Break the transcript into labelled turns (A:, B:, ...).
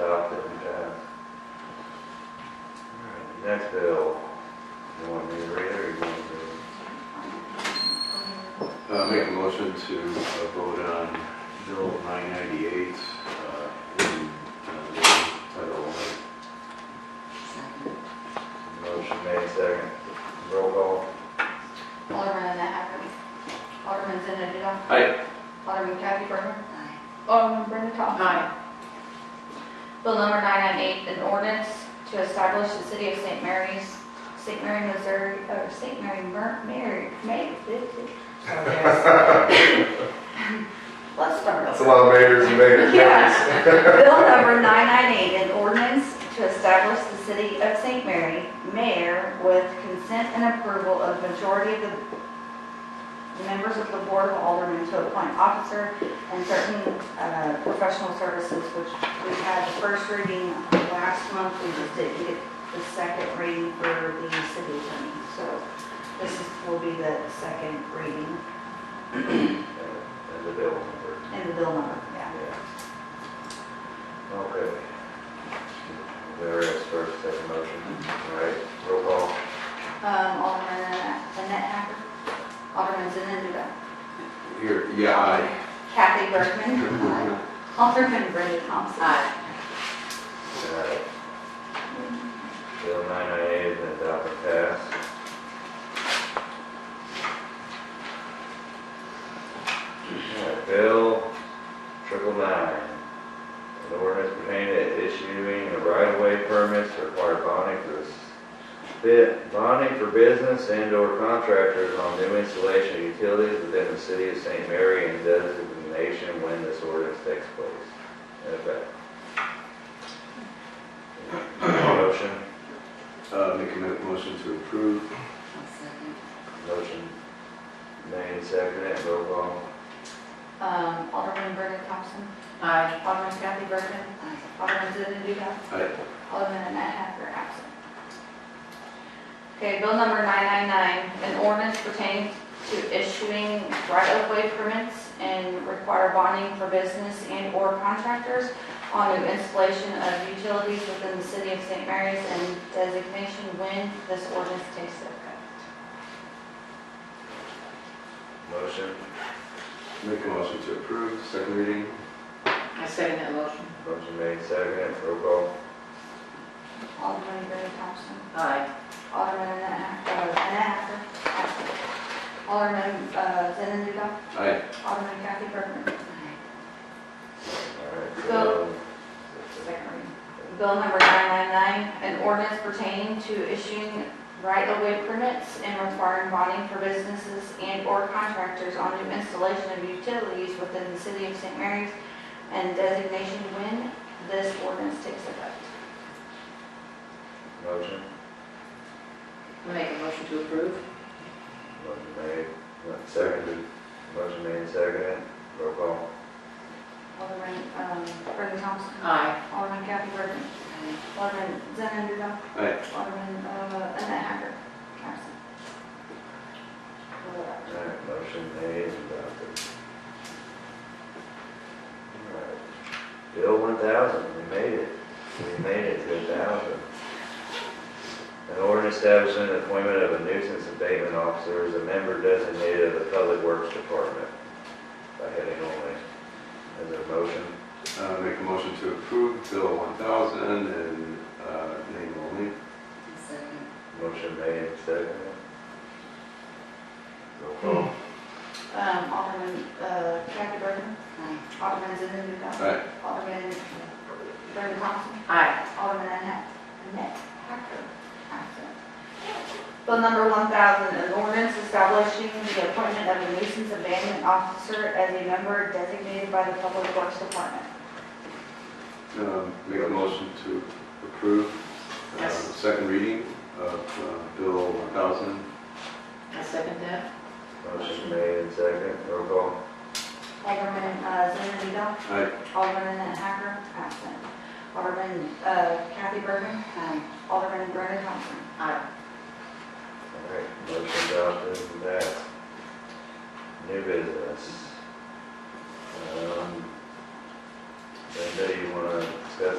A: out that we passed. All right, the Next bill, you want me to read it or you want to?
B: Uh, make a motion to uh, vote on Bill 998, uh, in, uh, the title only.
C: Second.
A: Motion made second. Roll call.
D: Alderman Hackard. Alderman Zenadino.
B: Aye.
D: Alderman Kathy Burman.
C: Aye.
D: Alderman Brenda Thompson. Bill number 998, an ordinance to establish the city of St. Mary's, St. Mary, Missouri, or St. Mary, Mer- Mary, May.
C: So there's-
D: Let's start over.
E: That's a lot of mayors and mayors.
D: Yeah. Bill number 998, an ordinance to establish the city of St. Mary, mayor, with consent and approval of majority of the the members of the board of aldermen to appoint officer and certain uh, professional services, which we had the first reading last month. We just didn't get the second reading for the city attorney. So this is- will be the second reading
A: And and the bill number.
D: in the bill number, yeah.
A: Yeah. Okay. There is first, second motion. All right, roll call.
D: Um, Alderman Annette Hacker, Alderman Zenúnda,
B: Here, yeah, aye.
D: Kathy Burkman, Alderman Brenda Thompson.
C: Aye.
A: All right. Bill 998 has been adopted and passed. All right, Bill triple nine. An ordinance pertaining to issuing a right-of-way permits to require bonding for s- bid, bonding for business and/or contractors on new installation of utilities within the city of St. Mary and designation when this ordinance takes place. In effect. Motion,
B: Uh, make a mo- motion to approve.
C: I'll second.
A: motion made, seconded, roll call.
D: Um, Alderman Brenda Thompson,
C: Aye.
D: Alderman Kathy Burkman,
C: Aye.
D: Alderman Zenúnda,
B: Aye.
D: Alderman Annette Hacker, absent. Okay, bill number 999, an ordinance pertaining to issuing right-of-way permits and require bonding for business and/or contractors on new installation of utilities within the city of St. Mary's and designation when this ordinance takes effect.
A: Motion,
B: Make a motion to approve, second reading.
C: I second that motion.
A: motion made, seconded, roll call.
D: Alderman Gary Thompson.
C: Aye.
D: Alderman Annette Hack- uh, Annette Hacker. absent. Alderman uh, Zenúnda.
B: Aye.
D: Alderman Kathy Burman.
A: All right,
D: Go.
A: so,
D: Second reading. Bill number 999, an ordinance pertaining to issuing right-of-way permits and requiring bonding for businesses and/or contractors on new installation of utilities within the city of St. Mary's and designation when this ordinance takes effect.
A: motion,
C: I make a motion to approve.
A: motion made, not seconded, motion made, seconded, roll call.
D: Alderman um, Brendan Thompson.
C: Aye.
D: Alderman Kathy Burman. Alderman Zenadino.
B: Aye.
D: Alderman uh, Annette Hacker. Absent. Four.
A: All right, motion made, and adopted. All right, Bill 1000, we made it, we made it to 1000. An ordinance establishing the appointment of a nuisance abatement officer as a member designated of the Public Works Department by heading only. Is there a motion?
B: Uh, make a motion to approve Bill 1000 and, uh, name only.
C: I second.
A: Motion made, second. Roll call.
D: Um, Alderman, uh, Kathy Burman,
C: Aye.
D: Alderman Zenúnda,
B: Aye.
D: Alderman Brendan Thompson,
C: Aye.
D: Alderman Annette, Annette Hacker, absent. Bill number one thousand, an ordinance establishing the appointment of a nuisance abandonment officer as a member designated by the Public Works Department.
B: Um, make a motion to approve, uh,
C: Yes.
B: second reading of, uh, Bill 1000.
C: I second that.
A: Motion made, second. Roll call.
D: Alderman, uh, Zenúnda,
B: Aye.
D: Alderman Annette Hacker, absent. Alderman, uh, Kathy Burman,
C: Aye.
D: Alderman Brendan Thompson.
C: Aye.
A: All right, motion adopted and passed. New business. Um, Brenda, you wanna discuss